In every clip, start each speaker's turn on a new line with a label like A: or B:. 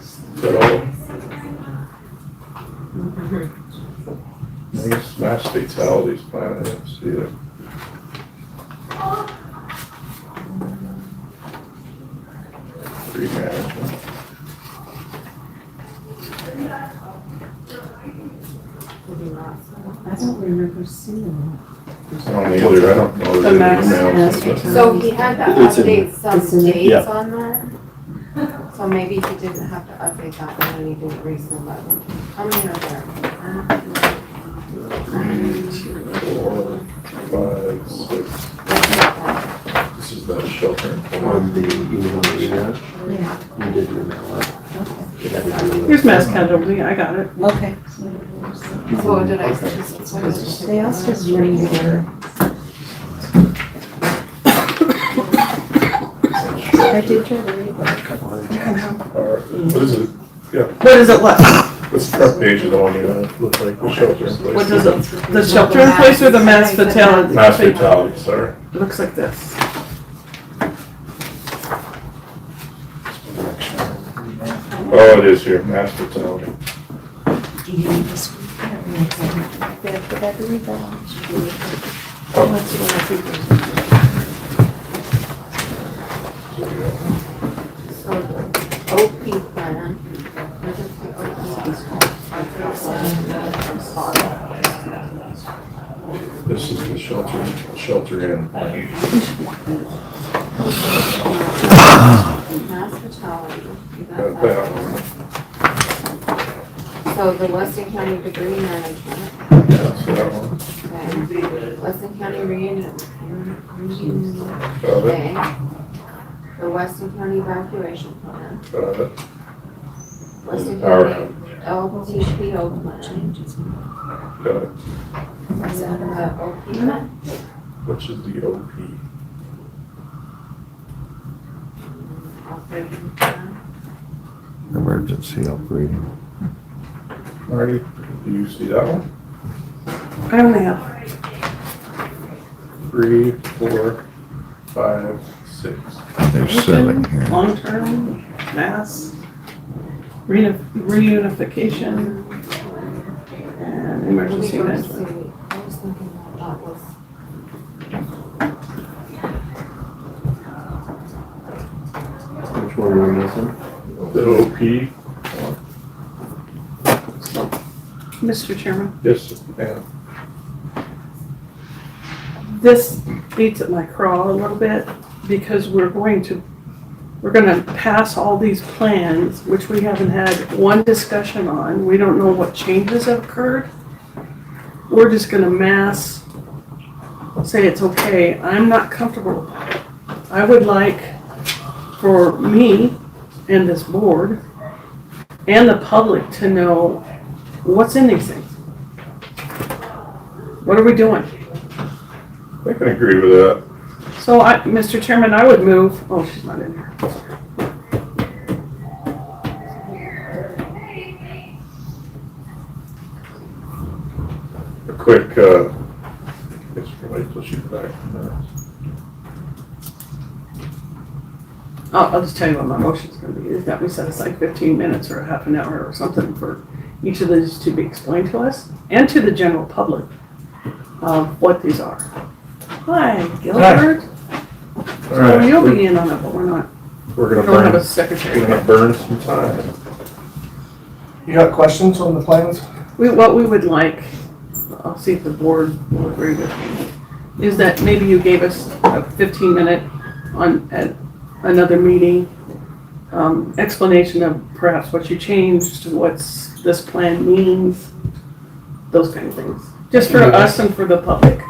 A: hospital. Nice, mass fatalities plan, I didn't see it. Free management.
B: I don't remember seeing
A: I don't either, I don't know.
B: The
A: if
B: max
A: there's emails.
B: capacity.
C: So Oh, he had to
D: It's in-
C: update some
B: It's in-
D: Yeah.
C: dates on that? So maybe he didn't have to update that one and he didn't resend that one. How many are there?
A: Four, five, six. This is that shelter. in
D: On
A: Poland.
D: the email that you got,
B: Yeah.
D: you did email it. You had to do it.
E: Here's mass casualty, I got it.
B: Okay.
C: So did I?
B: They also bring their, I did try to read that.
A: Or- What is it,
E: What is it left?
A: what's the front page of the one you have, looks like the shelter in place?
E: What does it, the shelter in place or the mass fatality?
A: Mass fatalities, sorry.
E: Looks like this.
A: Oh, it is here, mass fatality.
B: Did I- did I read that one?
C: So OP plan. emergency OP.
A: This is the shelter, shelter in.
C: Mass fatality.
A: Got that one.
C: So the Weston County Debris Management.
A: Yeah, so that one.
C: Okay. Weston County Reunion.
A: Got it,
C: Okay. The Weston County Evacuation Plan.
A: got it.
C: Weston
A: Power
C: County LTPO Plan.
A: Got it.
C: Is that the OP plan?
A: Which is the OP.
C: Operating plan.
F: Emergency operating.
A: Marty, do you see that one?
E: I only have,
A: Three, four, five, six.
F: There's seven here.
E: long-term, mass, reuni- reunification, and emergency
C: Legal
E: management.
C: proceeding. I was thinking that that was.
D: Which one were we missing?
A: The OP,
E: Mr. Chairman,
A: yes, and
E: this beats at my crawl a little bit because we're going to, we're gonna pass all these plans, which we haven't had one discussion on. We don't know what changes have occurred. We're just gonna mass, say it's okay. I'm not comfortable with that. I would like for me and this board and the public to know what's in these things. What are we doing?
A: I can agree with that.
E: So I, Mr. Chairman, I would move, oh, she's not in here.
A: A quick, uh, it's probably till she's back.
E: I'll, I'll just tell you what my motion's gonna be, is that we set aside fifteen minutes or half an hour or something for each of these to be explained to us and to the general public of what these are. Hi, Gilbert.
A: All
E: Well,
A: right,
E: You'll
A: we're-
E: be in on it, but we're not,
A: we're
E: we
A: gonna
E: don't have a
A: burn, we're
E: secretary.
A: gonna burn some time.
G: You got questions on the plans?
E: We, what we would like, I'll see if the board will agree with me, is that maybe you gave us a fifteen minute on, at another meeting, um, explanation of perhaps what you changed, what's this plan means, those kind of things, just for us and for the public.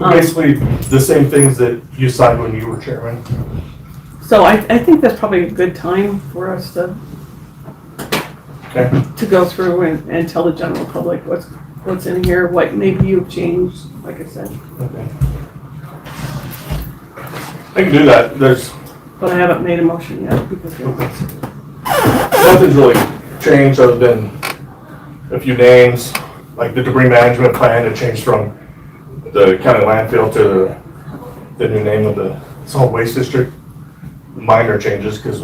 E: Um,
G: Basically, the same things that you signed when you were chairman.
E: So I, I think that's probably a good time for us to,
G: Okay.
E: to go through and, and tell the general public what's, what's in here, what maybe you've changed, like I said.
G: Okay. I can do that. There's,
E: But I haven't made a motion yet because we don't-
G: nothing's really changed other than a few names, like the debris management plan, it changed from the county landfill to the new name of the solid waste district. Minor changes, because